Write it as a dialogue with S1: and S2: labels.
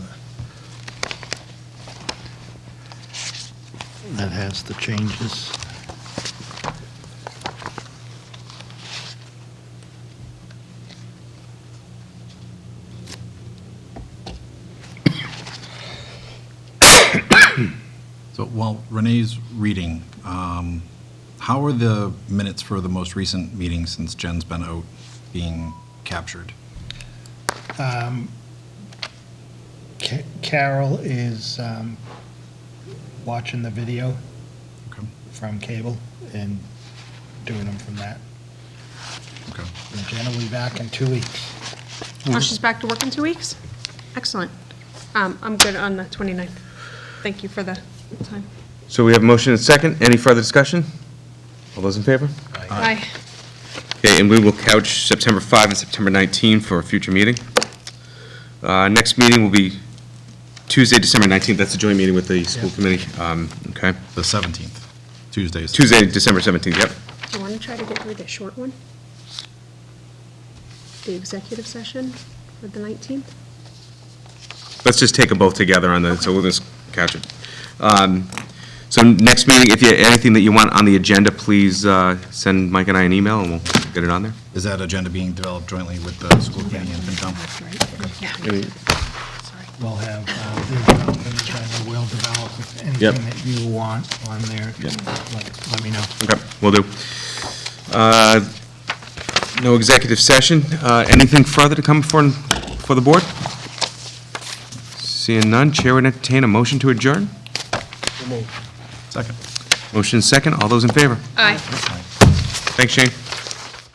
S1: that has the changes.
S2: So while Renee's reading, um, how are the minutes for the most recent meeting since Jen's been out being captured?
S1: Ca- Carol is um, watching the video
S2: Okay,
S1: from cable and doing them from that.
S2: okay.
S1: And Jen will be back in two weeks.
S3: Oh, she's back to work in two weeks? Excellent. Um, I'm good on the 29th. Thank you for the time.
S4: So we have a motion and a second. Any further discussion? All those in favor?
S3: Aye.
S4: Okay, and we will couch September 5 and September 19 for a future meeting. Uh, Next meeting will be Tuesday, December 19th. That's a joint meeting with the school committee. Um, Okay.
S2: The 17th, Tuesday. is-
S4: Tuesday, December 17th, yep.
S3: Do you want to try to get through the short one? The executive session for the 19th?
S4: Let's just take them both together on the, so we'll just couch it. Um, So next meeting, if you, anything that you want on the agenda, please uh, send Mike and I an email and we'll get it on there.
S2: Is that agenda being developed jointly with the school committee and FinCom?
S3: That's right. Yeah. Sorry.
S1: We'll have, uh, the development agenda will develop with
S4: Yep.
S1: anything that you want on there. Let let me know.
S4: Okay, we will do. Uh, No executive session. Uh, Anything further to come for, for the board? Seeing none, Chair would entertain a motion to adjourn.
S2: Second.
S4: Motion second, all those in favor?
S3: Aye.
S4: Thanks, Shane.